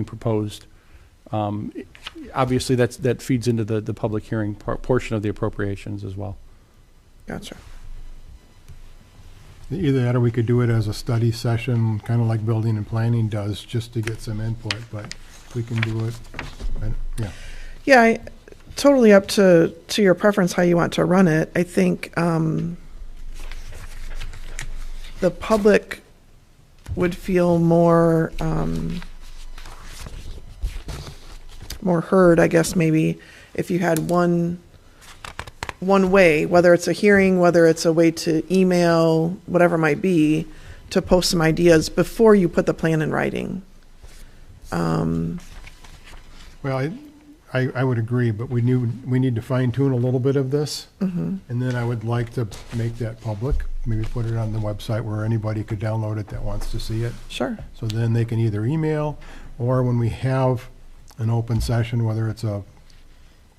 being proposed. Um, i- Obviously, that's, that feeds into the, the public hearing por- portion of the appropriations as well. Gotcha. Either that, or we could do it as a study session, kind of like building and planning does, just to get some input, but we can do it, I- yeah. Yeah, I, totally up to to your preference how you want to run it. I think um, the public would feel more um, more heard, I guess maybe if you had one one way, whether it's a hearing, whether it's a way to email, whatever it might be, to post some ideas before you put the plan in writing. Well, I- I, I would agree, but we knew, we need to fine tune a little bit of this. Mm-hmm. And then I would like to make that public, maybe put it on the website where anybody could download it that wants to see it. Sure. So then they can either email, or when we have an open session, whether it's a,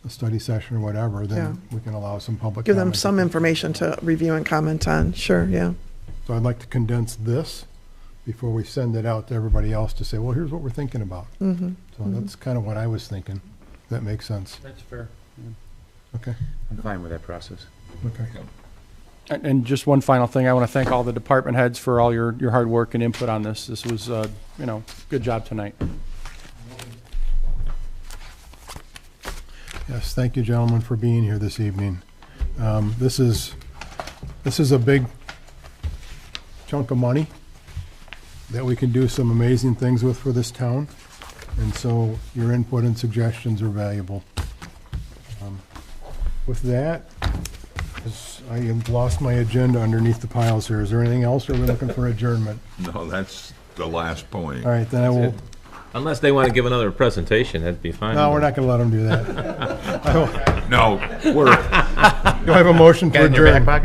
a study session or whatever, then we can allow some public. Give them comment. some information to review and comment on. Sure, yeah. So I'd like to condense this before we send it out to everybody else to say, well, here's what we're thinking about. Mhm. So that's kind of what I was thinking. That makes sense. That's fair. Okay, I'm fine with that process. okay. And, and just one final thing, I want to thank all the department heads for all your, your hard work and input on this. This was, uh, you know, good job tonight. Yes, thank you, gentlemen, for being here this evening. Um, This is, this is a big chunk of money that we can do some amazing things with for this town, and so your input and suggestions are valuable. Um, With that, is- I have lost my agenda underneath the piles here. Is there anything else, or are we looking for adjournment? No, that's the last point. All right, then I will, Unless they want to give another presentation, that'd be fine. no, we're not going to let them do that. I will- No, we're. Do I have a motion for Got it in your back adjournment? pocket?